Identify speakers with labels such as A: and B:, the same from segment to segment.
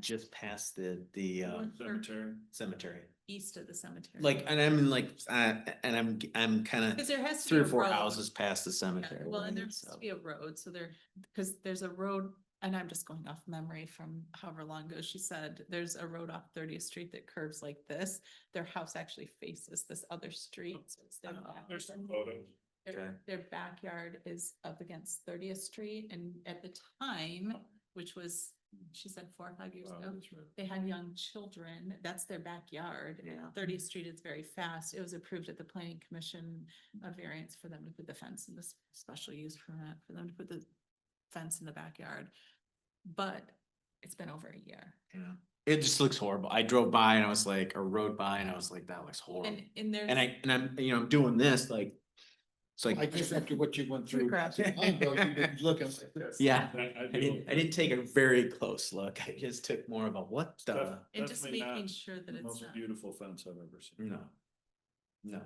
A: just past the, the, uh,
B: One third
C: Cemetery.
A: cemetery.
B: East of the cemetery.
A: Like, and I'm in like, uh, and I'm, I'm kind
B: Cause
A: of
B: there has to be.
A: three or
B: a
A: four
B: road.
A: houses past the
B: Yeah,
A: cemetery.
B: Well, and
A: right?
B: there has to
A: So-
B: be a road, so there, because there's a road, and I'm just going off memory from however long ago she said, there's a road off Thirtieth Street that curves like this. Their house actually faces this other street, so it's their
A: Oh,
B: back-
C: There's some photos.
B: Their
A: Okay.
B: their backyard is up against Thirtieth Street, and at the time, which was, she said four, or five years
C: Wow,
B: ago,
C: that's right.
B: they had young children, that's their backyard.
A: Yeah.
B: Thirtieth Street is very fast. It was approved at the planning commission, a variance for them to put the fence in this special use permit, for them to put the fence in the backyard. But it's been over a year.
A: Yeah. It just looks horrible. I drove by and I was like, or rode by and I was like, that looks horrible.
B: And, and there's.
A: And I, and I'm, you know, I'm doing this like, it's
D: I
A: like,
D: guess after what you went through.
B: Crap.
D: Looking like this.
A: yeah,
C: I, I
A: I
C: do.
A: didn't, I didn't take a very close look. I just took more of a what the,
C: Def-
B: And just
C: definitely not
B: making sure that
C: the
B: it's
C: Most
B: not.
C: beautiful fence I've ever seen.
A: no. No.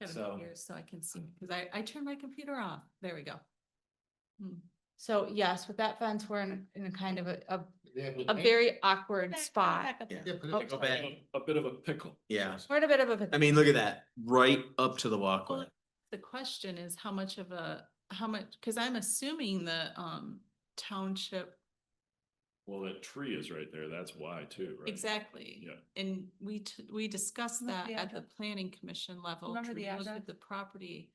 B: Gotta
A: So-
B: move here so I can see, cause I, I turned my computer off. There we go.
E: So yes, with that fence, we're in, in a kind of a, a,
D: Yeah, but-
E: a very awkward
B: Back-
E: spot.
B: back up.
A: Yeah.
D: Yeah,
E: Oh,
D: but
A: Go
D: it's-
A: back.
C: A bit of a pickle.
A: Yeah.
E: We're in a bit of a.
A: I mean, look at that, right up to the walkway.
B: Well, The question is how much of a, how much, cause I'm assuming the, um, township
C: Well, that tree is right there. That's why too, right?
B: Exactly.
C: Yeah.
B: And we, t- we discussed
E: Remember
B: that
E: the
B: at the
E: address?
B: planning commission level.
E: Remember the
B: to look at
E: address?
B: The property,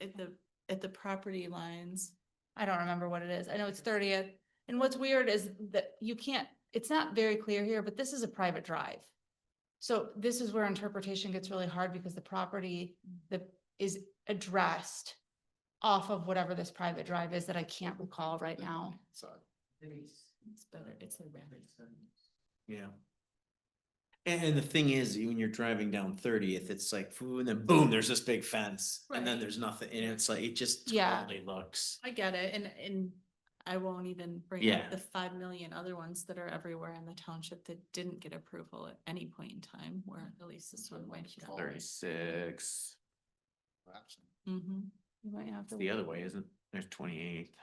B: at the, at the property lines.
E: I don't remember what it is. I know it's thirtieth. And what's weird is that you can't, it's not very clear here, but this is a private drive. So this is where interpretation gets really hard because the property that is addressed off of whatever this private drive is that I can't recall right now.
D: Sorry.
B: It's better, it's a rabbit.
A: Yeah. And, and the thing is, you- when you're driving down Thirtieth, it's like, phew, and then boom, there's this big fence, and then
B: Right.
A: there's nothing, and it's like, it just
E: Yeah.
A: totally looks.
B: I get it, and, and I won't even bring
A: Yeah.
B: up the five million other ones that are everywhere in the township that didn't get approval at any point in time, where at least this one went.
D: Sorry.
A: Thirty-six,
B: Mm-hmm.
E: You might have
A: it's
E: to.
A: the other way, isn't, it? there's twenty-eighth.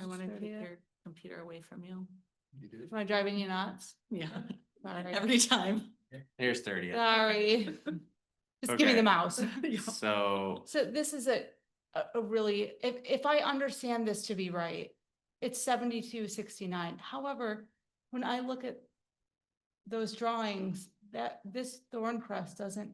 B: I wanna take
E: 30th.
B: your computer away from you.
D: You did?
E: Am I driving you nuts?
B: Yeah,
E: Sorry.
B: every time.
A: There's
E: Uh,
A: Thirtieth,
E: Sorry. Just give me
A: Okay.
E: the mouse.
A: so,
E: So this is a, a, a really, if, if I understand this to be right, it's seventy-two sixty-nine. However, when I look at those drawings, that, this thorn crest doesn't,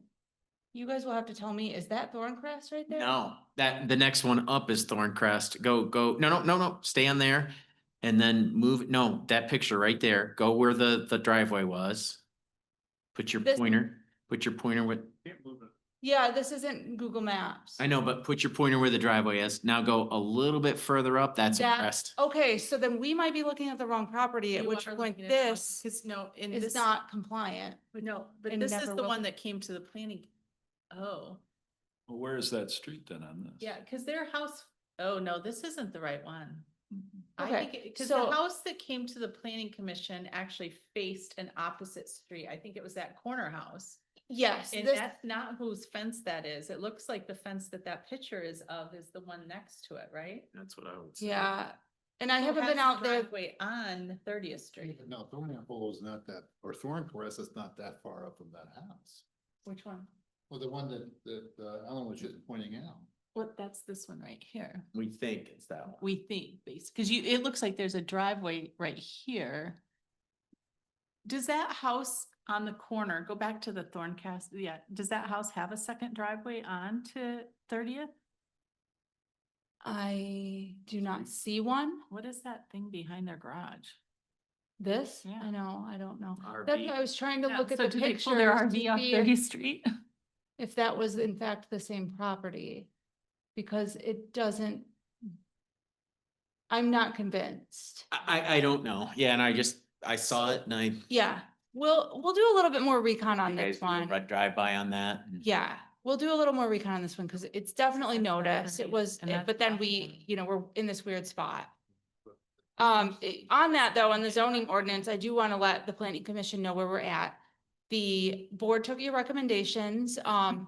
E: you guys will have to tell me, is that thorn crest right there?
A: no, that, the next one up is Thorncrest, go, go, no, no, no, no, stay on there. And then move, no, that picture right there, go where the, the driveway was. Put your
E: This-
A: pointer, put your pointer with,
C: Can't move it.
E: Yeah, this isn't Google Maps.
A: I know, but put your pointer where the driveway is. Now go a little bit further up. That's a
E: That-
A: crest.
E: Okay, so then we might be looking at the wrong property, at
B: You
E: which
B: are
E: point
B: looking at it wrong,
E: this
B: Cause no, and
E: is
B: this.
E: not compliant.
B: But No, but
E: and
B: this is
E: never
B: the
E: will
B: one
E: be.
B: that came to the planning. Oh,
C: Well, where is that street then on this?
B: yeah, because their house, oh no, this isn't the right one. I
E: Okay,
B: think, because the
E: so-
B: house that came to the planning commission actually faced an opposite street. I think it was that corner house.
E: Yes,
B: And
E: this-
B: that's not whose fence that is. It looks like the fence that that picture is of is the one next to it, right?
A: That's what I would
E: yeah, and I
B: Who
E: haven't
B: has
E: been
B: the
E: out there.
B: driveway on Thirtieth Street.
D: No, Thornapple is not that, or Thorncrest is not that far up from that house.
B: Which one?
D: Well, the one that, that uh, Ellen was just pointing out.
B: Well, that's this one right here.
A: We think it's that one.
B: We think, based, because you, it looks like there's a driveway right here. Does that house on the corner, go back to the Thorncast, yeah, does that house have a second driveway on to Thirtieth?
E: I do not see one.
B: What is that thing behind their garage?
E: This,
B: Yeah.
E: I know, I don't know. That's
A: RV.
E: why I was trying to
B: Yeah,
E: look at
B: so
E: the
B: do they pull Their
E: pictures
B: RV
E: to
B: off
E: see if-
B: Thirtieth Street?
E: if that was in fact the same property. Because it doesn't. I'm not convinced.
A: I, I, I don't know. Yeah. And I just, I saw it and I.
E: Yeah, we'll, we'll do a little bit more recon on this one.
A: Drive by on that. and-
E: Yeah, we'll do a little more recon on this one because it's definitely
B: That's not
E: noticed. It
B: right,
E: was,
B: and
E: eh,
B: that's
E: but then
B: not
E: we,
B: right.
E: you know, we're in this weird spot. Um, eh, on that though, on the zoning ordinance, I do want to let the planning commission know where we're at. The board took your recommendations, um,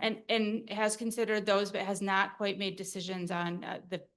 E: and, and has considered those, but has not quite made decisions on, uh, the